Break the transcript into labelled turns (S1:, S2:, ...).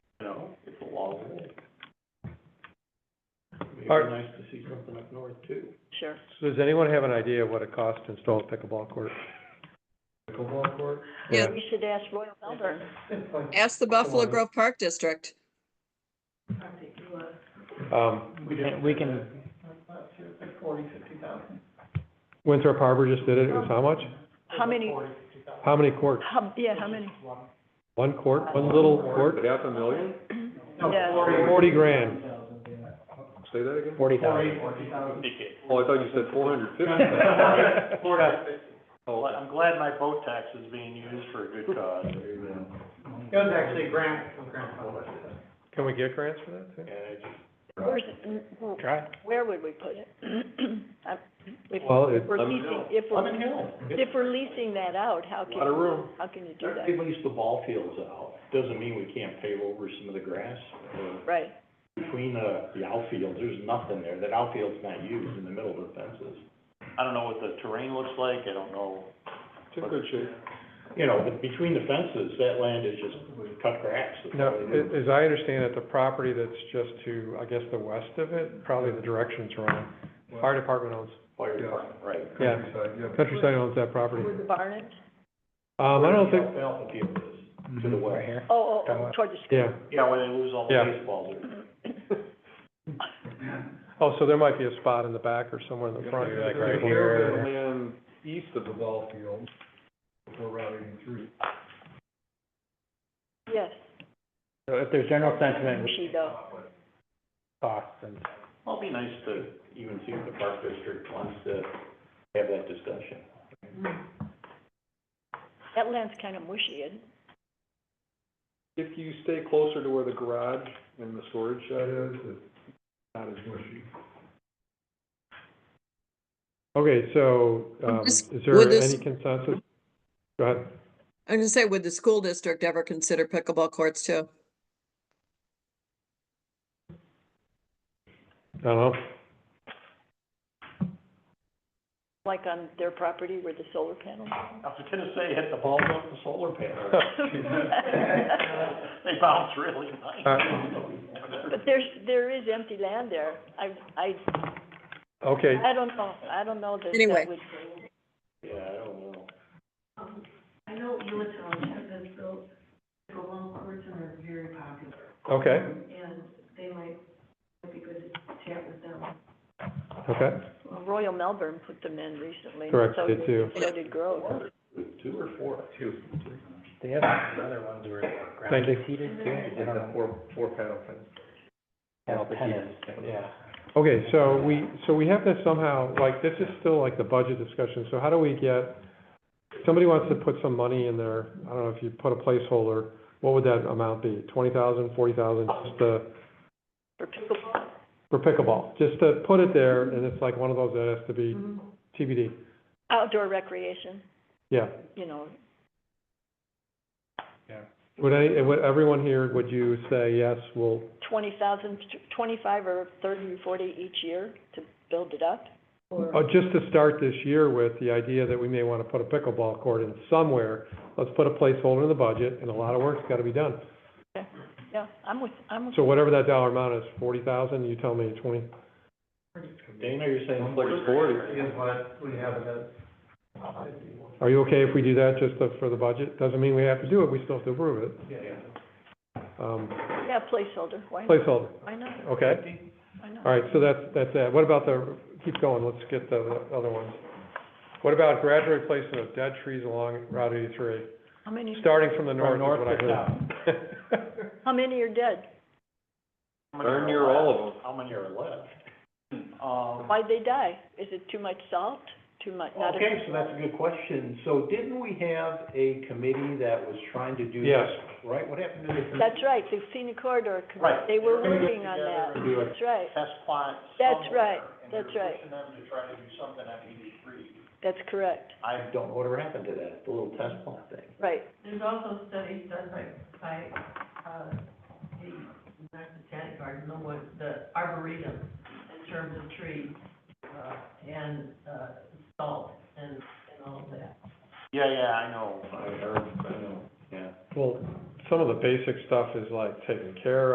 S1: Are-
S2: be nice to see something up north too.
S3: Sure.
S1: So does anyone have an idea what it costs to install a pickleball court?
S2: Pickleball court.
S4: Yeah.
S3: We should ask Royal Melbourne.
S2: It's like-
S4: Ask the Buffalo
S2: Come on.
S4: Grove Park District.
S1: Um,
S2: We can, we can. Forty, fifty thousand.
S1: Winthrop Harbor just did it, it was how much?
S3: How many,
S1: How many courts?
S3: how, yeah, how many?
S1: One court, one little court?
S5: Half a million?
S3: Yeah.
S1: Forty grand.
S5: Say that again?
S6: Forty
S2: Forty,
S6: thousand.
S2: forty thousand.
S5: Oh, I thought you said four hundred
S1: fifty.
S7: I'm glad my boat tax is being used for a good cause.
S2: It was actually a grant from Grant Public.
S1: Can we get grants for that too?
S3: Where's, it-
S1: Try.
S3: where would we put it? I- If
S1: Well, it-
S3: we're
S5: Lemon
S3: leasing,
S5: Hill.
S3: if
S2: Lemon
S3: we're,
S2: Hill.
S3: if we're leasing that out, how can,
S5: Lot of room.
S3: how can you do that?
S6: People lease the ball fields out, doesn't mean we can't pave over some of the grass. Uh,
S3: Right,
S6: Between the, the outfields, there's nothing there, that outfield's not used in the middle of the fences.
S7: I don't know what the terrain looks like, I don't know.
S5: It's in good shape.
S6: You know, but between the fences, that land is just cut grass.
S1: Now, a- as I understand it, the property that's just to, I guess, the west of it, probably the direction's wrong. Fire department owns,
S6: Fire department, right.
S1: Yeah.
S5: Countryside, yeah.
S1: countryside owns that property.
S3: where the barn is?
S1: Um, I don't think,
S6: The alfalfa field is, to the west.
S3: Oh, oh, oh, toward the school.
S1: yeah.
S7: Yeah, where they lose all the
S1: Mm-hmm. Yeah.
S6: Baseballs are.
S1: Oh, so there might be a spot in the back or somewhere in the front.
S5: There's a fair bit of land east of the ball field before Route eighty-three.
S3: Yes,
S6: So if there's general sentiment
S3: she though.
S6: costs and. Well, it'd be nice to even see if the park district wants to have that discussion.
S3: That land's kind of mushy, isn't it?
S5: If you stay closer to where the garage and the storage shed is, it's not as mushy.
S1: Okay, so, um,
S4: Would
S1: is
S4: this-
S1: there
S4: would this-
S1: any consensus? Go ahead.
S4: I'm gonna say, would the school district ever consider pickleball courts too?
S1: I don't know.
S3: like on their property where the solar panels
S7: I
S3: are.
S7: was gonna say, hit the ball off the solar panel. They bounce really
S1: Uh-huh.
S7: nice.
S3: But there's, there is empty land there. I, I,
S1: Okay,
S3: I don't know, I don't know that
S4: Anyway.
S3: that would.
S7: Yeah, I don't know.
S8: I know Unitil has built pickleball courts and are very popular,
S1: okay,
S8: and they might, might be good to chat with them.
S1: okay.
S3: Well, Royal Melbourne put them in recently. and
S1: Correct,
S3: so
S1: they do.
S3: So did Grove.
S6: Two or four? Two.
S1: They have other ones where. Thank you.
S6: I don't know. Four, four paddle fences. Paddle tennis, yeah.
S1: Okay, so we, so we have to somehow, like, this is still like the budget discussion, so how do we get, somebody wants to put some money in there, I don't know if you put a placeholder, what would that amount be? Twenty thousand, forty thousand, just to,
S3: For pickleball,
S1: for pickleball, just to put it there, and it's like one of those that has to be
S4: Mm-hmm.
S1: TBD,
S3: outdoor recreation,
S1: yeah.
S3: you know,
S1: Would any, would everyone here, would you say, yes, we'll,
S3: twenty thousand, twenty-five or thirty or forty each year to build it up? Or,
S1: oh, just to start this year with the idea that we may wanna put a pickleball court in somewhere, let's put a placeholder in the budget, and a lot of work's gotta be done.
S3: yeah, I'm with, I'm with,
S1: So whatever that dollar amount is, forty thousand, you tell me twenty,
S6: Dana, you're saying
S5: Like
S6: four?
S5: forty.
S2: Is what we have it at fifty one.
S1: are you okay if we do that just to- for the budget? Doesn't mean we have to do it, we still have to approve it.
S2: Yeah, yeah.
S1: Um,
S3: yeah, placeholder, why not?
S1: placeholder,
S3: Why not?
S1: okay?
S3: Why not?
S1: All right, so that's, that's that. What about the, keep going, let's get the the other ones. What about gradual replacement of dead trees along Route eighty-three?
S3: How many,
S1: Starting from the north is
S6: north
S1: what I
S6: to
S1: heard.
S3: how many are dead?
S7: How many
S5: Darn
S7: are
S5: near
S7: left?
S5: all of them.
S7: How many are left? Um,
S3: Why'd they die? Is it too much salt? Too much, not enough?
S6: Okay, so that's a good question. So didn't we have a committee that was trying to do this?
S1: Yes.
S6: Right, what happened to the committee?
S3: That's right, the scenic corridor, committee.
S7: Right.
S3: they were
S7: They're gonna get
S3: working on
S7: together
S3: that.
S6: and do a-
S3: That's right,
S7: test plot
S3: That's
S7: somewhere.
S3: right, that's right.
S7: And they're pushing them to try to do something at eighty-three.
S3: that's correct,
S7: I
S6: I don't know whatever happened to that, the little test plot thing.
S3: right.
S8: There's also studies done by, by, uh, the, not the Tannic Garden, no, what, the Arboretum, in terms of trees, uh, and, uh, salt, and, and all of that.
S7: Yeah, yeah, I know.
S6: I heard, I know, yeah.
S1: Well, some of the basic stuff is like taken care